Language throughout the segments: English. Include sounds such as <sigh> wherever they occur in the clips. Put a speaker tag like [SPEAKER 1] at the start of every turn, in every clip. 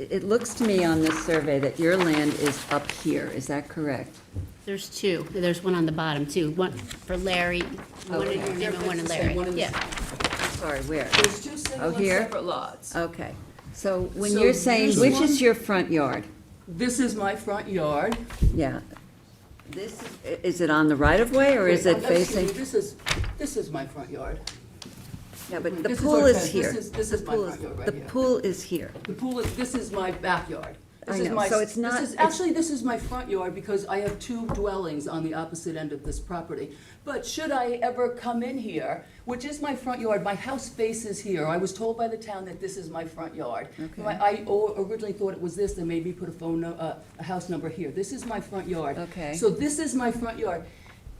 [SPEAKER 1] it it looks to me on this survey that your land is up here, is that correct?
[SPEAKER 2] There's two, there's one on the bottom too, one for Larry, one in your name and one in Larry, yeah.
[SPEAKER 1] Sorry, where?
[SPEAKER 3] There's two
[SPEAKER 1] Oh,
[SPEAKER 3] single and
[SPEAKER 1] here?
[SPEAKER 3] separate lots.
[SPEAKER 1] Okay, so when
[SPEAKER 3] So
[SPEAKER 1] you're saying,
[SPEAKER 3] here's
[SPEAKER 1] which
[SPEAKER 3] one-
[SPEAKER 1] is your front yard?
[SPEAKER 3] This is my front yard.
[SPEAKER 1] Yeah. This, is- i- is it on the right-of-way, or is it
[SPEAKER 3] Wait, oh, excuse me,
[SPEAKER 1] facing?
[SPEAKER 3] This is, this is my front yard.
[SPEAKER 1] Yeah, but the
[SPEAKER 3] This is
[SPEAKER 1] pool
[SPEAKER 3] our
[SPEAKER 1] is
[SPEAKER 3] fence.
[SPEAKER 1] here.
[SPEAKER 3] This is- this
[SPEAKER 1] The
[SPEAKER 3] is my
[SPEAKER 1] pool
[SPEAKER 3] front yard right
[SPEAKER 1] The
[SPEAKER 3] here.
[SPEAKER 1] pool is here.
[SPEAKER 3] The pool is, this is my backyard. This
[SPEAKER 1] I
[SPEAKER 3] is
[SPEAKER 1] know,
[SPEAKER 3] my-
[SPEAKER 1] so it's not-
[SPEAKER 3] This is,
[SPEAKER 1] it's-
[SPEAKER 3] actually, this is my front yard because I have two dwellings on the opposite end of this property. But should I ever come in here, which is my front yard, my house faces here. I was told by the town that this is my front yard.
[SPEAKER 1] Okay.
[SPEAKER 3] My- I o- originally thought it was this, they made me put a phone, nu- uh, a house number here. This is my front yard.
[SPEAKER 1] Okay.
[SPEAKER 3] So this is my front yard.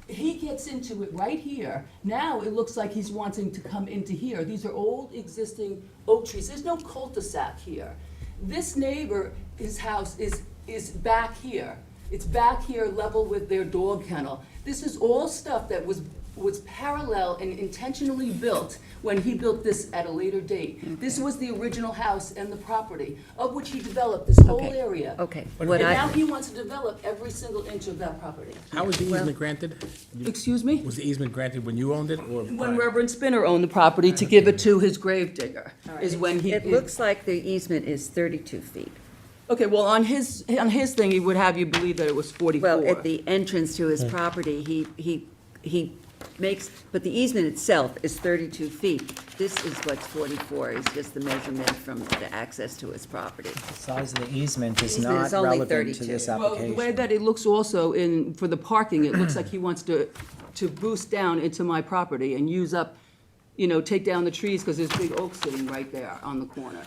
[SPEAKER 3] He gets into it right here. Now it looks like he's wanting to come into here. These are old existing oak trees. There's no cul-de-sac here. This neighbor, his house is, is back here. It's back here level with their dog kennel. This is all stuff that was, was parallel and intentionally built when he built this at a later date. This was the original house and the property of which he developed this whole
[SPEAKER 1] Okay,
[SPEAKER 3] area.
[SPEAKER 1] Okay,
[SPEAKER 3] And
[SPEAKER 1] what
[SPEAKER 3] now
[SPEAKER 1] I,
[SPEAKER 3] he wants to develop every single inch of that property.
[SPEAKER 4] How was the easement granted?
[SPEAKER 3] Excuse me?
[SPEAKER 4] Was the easement granted when you owned it or?
[SPEAKER 3] When Reverend Spinner owned the property to give it to his gravedigger, is when he.
[SPEAKER 1] it looks like the easement is 32 feet.
[SPEAKER 3] Okay, well, on his, on his thing, he would have you believe that it was
[SPEAKER 1] Well, at
[SPEAKER 3] forty-four.
[SPEAKER 1] the entrance to his property, he, he, he makes, but the easement itself is 32 feet. This is what's 44, is just the measurement from the access to his property.
[SPEAKER 5] Size of the easement is
[SPEAKER 1] Easement
[SPEAKER 5] not
[SPEAKER 1] is only
[SPEAKER 5] relevant to
[SPEAKER 1] 32.
[SPEAKER 5] this
[SPEAKER 3] Well, the way
[SPEAKER 5] application.
[SPEAKER 3] that it looks also in, for the parking, it looks like he wants to, to boost down into my property and use up, you know, take down the trees, because there's big oaks sitting right there on the corner.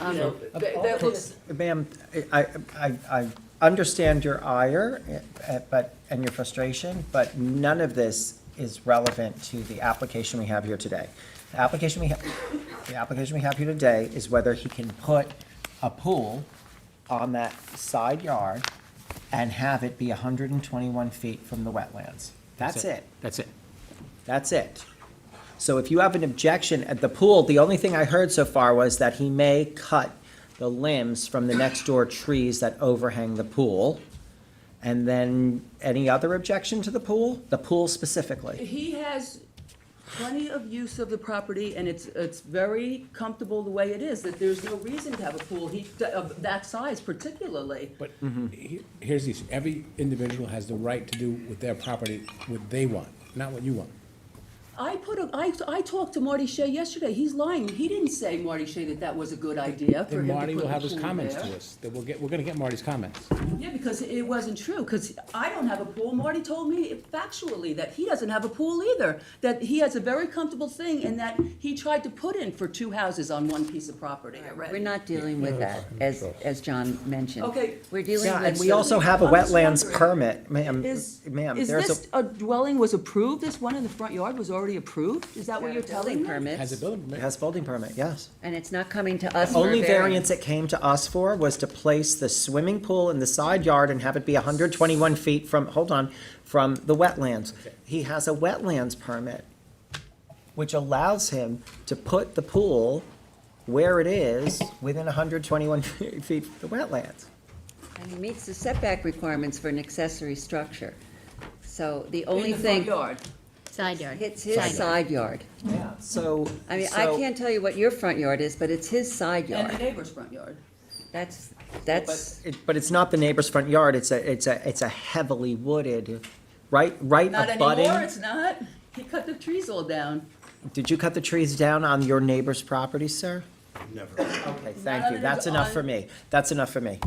[SPEAKER 3] You know, that, that looks,
[SPEAKER 5] Ma'am, I, I, I understand your ire, eh, but, and your frustration, but none of this is relevant to the application we have here today. The application we, ha- the application we have here today is whether he can put a pool on that side yard and have it be hundred and twenty-one feet from the wetlands. That's it.
[SPEAKER 4] That's it.
[SPEAKER 5] That's it. So if you have an objection at the pool, the only thing I heard so far was that he may cut the limbs from the next door trees that overhang the pool. And then any other objection to the pool? The pool specifically?
[SPEAKER 3] He has plenty of use of the property, and it's, it's very comfortable the way it is, that there's no reason to have a pool he, of that size particularly.
[SPEAKER 4] But he- here's the issue. Every individual has the right to do with their property what they want, not what you want.
[SPEAKER 3] I put a, I, I talked to Marty Shea yesterday, he's lying, he didn't say, Marty Shea, that that was a good idea for
[SPEAKER 4] Then
[SPEAKER 3] him to
[SPEAKER 4] Marty
[SPEAKER 3] put
[SPEAKER 4] will
[SPEAKER 3] the
[SPEAKER 4] have his
[SPEAKER 3] pool
[SPEAKER 4] comments
[SPEAKER 3] there.
[SPEAKER 4] to us, that we'll get, we're gonna get Marty's comments.
[SPEAKER 3] Yeah, because it wasn't true, because I don't have a pool. Marty told me factually that he doesn't have a pool either, that he has a very comfortable thing and that he tried to put in for two houses on one piece of property already.
[SPEAKER 1] We're not dealing with that, as, as John mentioned.
[SPEAKER 3] Okay.
[SPEAKER 1] We're dealing
[SPEAKER 5] Yeah,
[SPEAKER 1] with.
[SPEAKER 5] and we also have a
[SPEAKER 3] I'm just
[SPEAKER 5] wetlands
[SPEAKER 3] wondering,
[SPEAKER 5] permit, ma'am,
[SPEAKER 3] Is,
[SPEAKER 5] ma'am,
[SPEAKER 3] is
[SPEAKER 5] there's
[SPEAKER 3] this,
[SPEAKER 5] a,
[SPEAKER 3] a dwelling was approved, this one in the front yard was already approved? Is that what
[SPEAKER 1] Building
[SPEAKER 3] you're telling me?
[SPEAKER 1] permits,
[SPEAKER 4] Has a building
[SPEAKER 5] it
[SPEAKER 4] permit.
[SPEAKER 5] has building permit, yes.
[SPEAKER 1] And it's not coming to us for a
[SPEAKER 5] Only variance
[SPEAKER 1] variance.
[SPEAKER 5] it came to us for was to place the swimming pool in the side yard and have it be hundred twenty-one feet from, hold on, from the wetlands. He has a wetlands permit, which allows him to put the pool where it is, within hundred twenty-one <laughs> feet of the wetlands.
[SPEAKER 1] And it meets the setback requirements for an accessory structure. So the
[SPEAKER 3] In
[SPEAKER 1] only
[SPEAKER 3] the front
[SPEAKER 1] thing,
[SPEAKER 3] yard.
[SPEAKER 2] Side yard.
[SPEAKER 1] it's his side yard.
[SPEAKER 5] Yeah. So.
[SPEAKER 1] I mean, I
[SPEAKER 5] so-
[SPEAKER 1] can't tell you what your front yard is, but it's his side
[SPEAKER 3] And the
[SPEAKER 1] yard.
[SPEAKER 3] neighbor's front yard.
[SPEAKER 1] That's, that's.
[SPEAKER 5] It- But it's not the neighbor's front yard, it's a, it's a, it's a heavily wooded, right, right
[SPEAKER 3] Not
[SPEAKER 5] abutting.
[SPEAKER 3] anymore, it's not. He cut the trees all down.
[SPEAKER 5] Did you cut the trees down on your neighbor's property, sir? Never. Okay,
[SPEAKER 3] Not
[SPEAKER 5] thank
[SPEAKER 3] on-
[SPEAKER 5] you. That's enough for
[SPEAKER 3] on-
[SPEAKER 5] me. That's enough for me.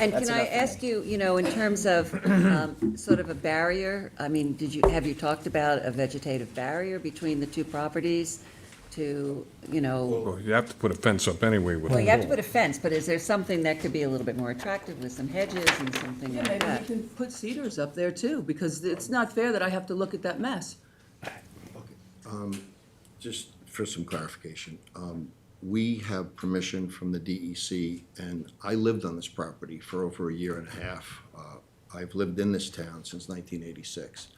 [SPEAKER 1] And
[SPEAKER 5] That's
[SPEAKER 1] can I
[SPEAKER 5] enough for
[SPEAKER 1] ask you, you know, in terms of um, sort of a barrier, I mean, did you, have you talked about a vegetative barrier between the two properties to, you know,
[SPEAKER 6] Well, you have to put a fence up anyway with.
[SPEAKER 1] well, you have to put a fence, but is there something that could be a little bit more attractive with some hedges and something
[SPEAKER 3] Yeah,
[SPEAKER 1] like
[SPEAKER 3] maybe we
[SPEAKER 1] that?
[SPEAKER 3] can put cedars up there too, because it's not fair that I have to look at that mess.
[SPEAKER 7] Just for some clarification, um, we have permission from the DEC, and I lived on this property for over a year and a half. Uh, I've lived in this town since nineteen eighty-six.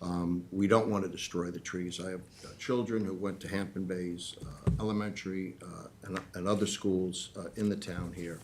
[SPEAKER 7] Um, We don't want to destroy the trees. I have uh, children who went to Hampton Bays uh, Elementary uh, and and other schools uh, in the town here.